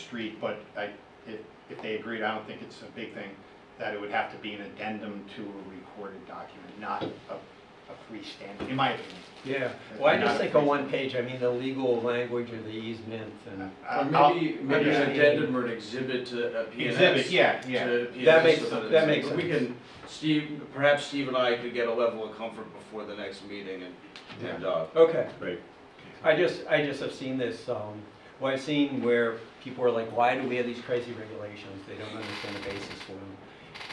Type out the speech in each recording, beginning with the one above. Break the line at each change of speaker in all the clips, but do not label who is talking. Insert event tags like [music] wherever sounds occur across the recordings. street, but I, if, if they agreed, I don't think it's a big thing, that it would have to be an addendum to a recorded document, not a, a freestanding, in my opinion.
Yeah,
That's
well, I
not
just
a
think on
free-
one page, I mean, the legal language of the easement and,
I-
Or
Uh, I'll-
maybe, maybe
yeah.
an addendum or an exhibit to a P and S.
Exhibit, yeah, yeah.
That makes- that makes
We
sense.
can, Steve, perhaps Steve and I could get a level of comfort before the next meeting and, and, uh,
okay.
Right.
I just, I just have seen this, um, well, I've seen where people are like, why do we have these crazy regulations? They don't understand the basis for them.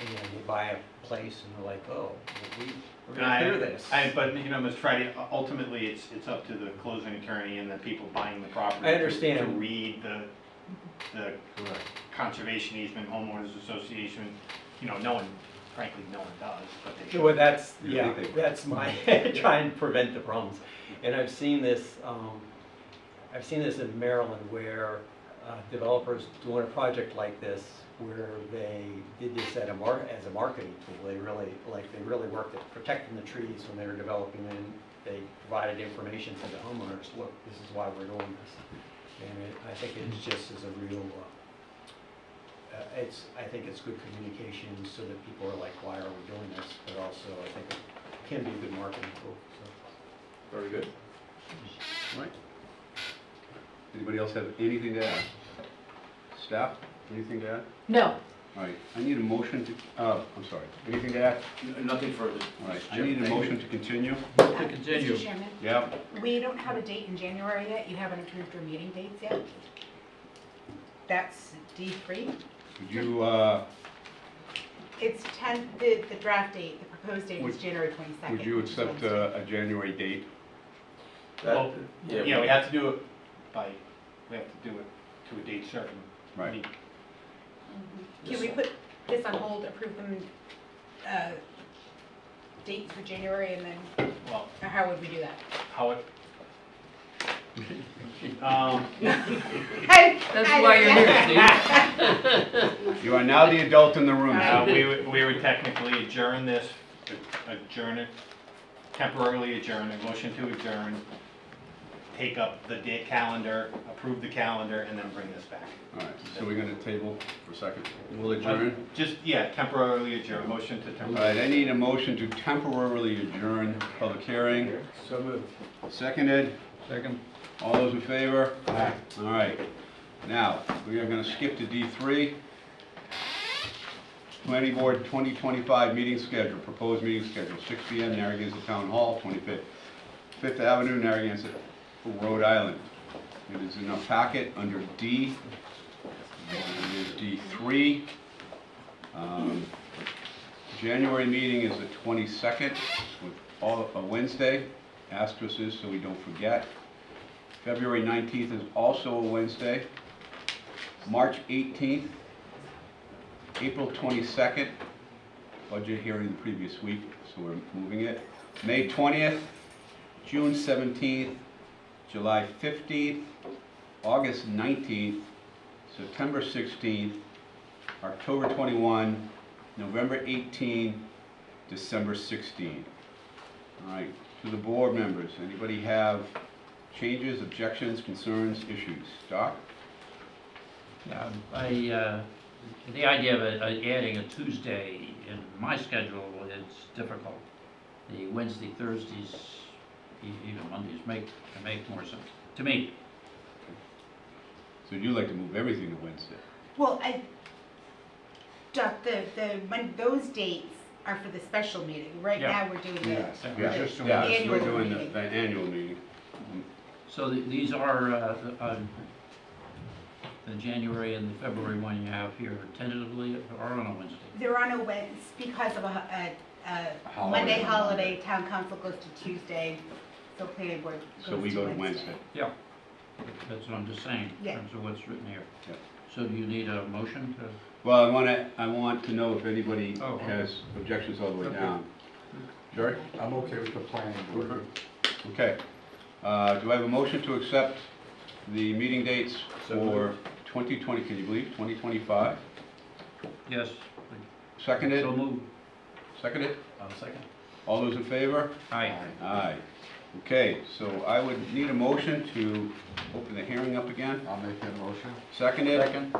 And they buy a place and they're like, oh, well, we, we're
I-
gonna clear this.
I, but, you know, Mr. Friday, u- ultimately, it's, it's up to the closing attorney and the people buying the property.
I
to- To
understand.
read the, the
Correct.
conservation easement, homeowners association, you know, no one, frankly, no one does, but they should.
[laughs] Well, that's,
You
yeah,
think they-
that's
[laughs]
my, [laughs] trying to prevent the problems. And I've seen this, um, I've seen this in Maryland where uh, developers doing a project like this, where they did this at a mar, as a marketing tool, they really, like, they really worked at protecting the trees when they were developing, and they provided information to the homeowners, look, this is why we're doing this. And it, I think it's just as a real, uh, uh, it's, I think it's good communication, so that people are like, why are we doing this? But also, I think it can be a good marketing tool, so.
very good.
Right. Anybody else have anything to add? Staff, anything to add?
No,
All right, I need a motion to, uh, I'm sorry, anything to add?
N- Nothing further.
All right, I need a motion to continue.
uh, Mr. Chairman,
Yeah,
we don't have a date in January yet, you haven't approved your meeting dates yet. That's D three,
would you, uh,
it's ten, the, the draft date, the proposed date is
Would-
January twenty-second.
would you accept uh, a, a January date?
That-
Well,
yeah,
Oh, Yeah, we have to do it by, we have to do it to a date certain. I
Right,
mean,
Can we put this on hold, approve them, uh, date for January and then,
Well,
or how would we
[laughs]
do that?
how
[laughs]
it. Um,
That's why you're here, Steve.
you are now the adult in the room.
uh, we would, we would technically adjourn this, adjourn it, temporarily adjourn, a motion to adjourn, take up the date calendar, approve the calendar, and then bring this back.
All right, so we're gonna table for a second. We'll adjourn.
Just, yeah, temporarily adjourn, motion to
All
temporarily.
right, I need a motion to temporarily adjourn public hearing.
So moved.
Seconded,
Second.
all those in favor? Aye. All right, now, we are gonna skip to D three. Planning Board 2025 meeting schedule, proposed meeting schedule, 6 PM, Narragansett Town Hall, 25th, 5th Avenue, Narragansett, Rhode Island. It is in a packet under D. It is D3. Um, January meeting is the 22nd, with all, a Wednesday, asterisks, so we don't forget. February 19th is also a Wednesday. March 18th April 22nd, budget hearing the previous week, so we're moving it. May 20th, June 17th, July 15th, August 19th, September 16th, October 21, November 18, December 16. All right, to the board members, anybody have changes, objections, concerns, issues? Doc?
Yeah, I, uh, the idea of uh, adding a Tuesday in my schedule is difficult. The Wednesday, Thursdays, e- even Mondays make, make more sense, to me.
So you like to move everything to Wednesday?
[laughs] Well, I, Jeff, the, the, when, those dates are for the special meeting, right
Yeah.
now we're doing this.
Yeah,
Just doing
yeah,
the
so we're
annual
doing the,
meeting.
the annual meeting.
So the- these are, uh, uh, the January and the February one you have here tentatively are on a Wednesday.
They're on a Wednesday, because of a, a, a
Holiday.
Monday holiday, town council goes to Tuesday, so planning board goes to Wednesday.
So we go to Wednesday.
That's what I'm just saying, in
Yeah.
terms of what's written here.
Yeah.
So do you need a motion to,
Well, I wanna, I want to know if anybody
Oh, okay.
has objections all the way down. Jerry?
I'm okay with the planning board.
Okay. Uh, do I have a motion to accept the meeting dates
So
for twenty twenty, can you believe, twenty twenty-five?
yes,
Seconded,
so move.
seconded?
um, second.
All those in favor?
Aye.
Aye. Okay, so I would need a motion to open the hearing up again.
I'll make that motion.
Seconded?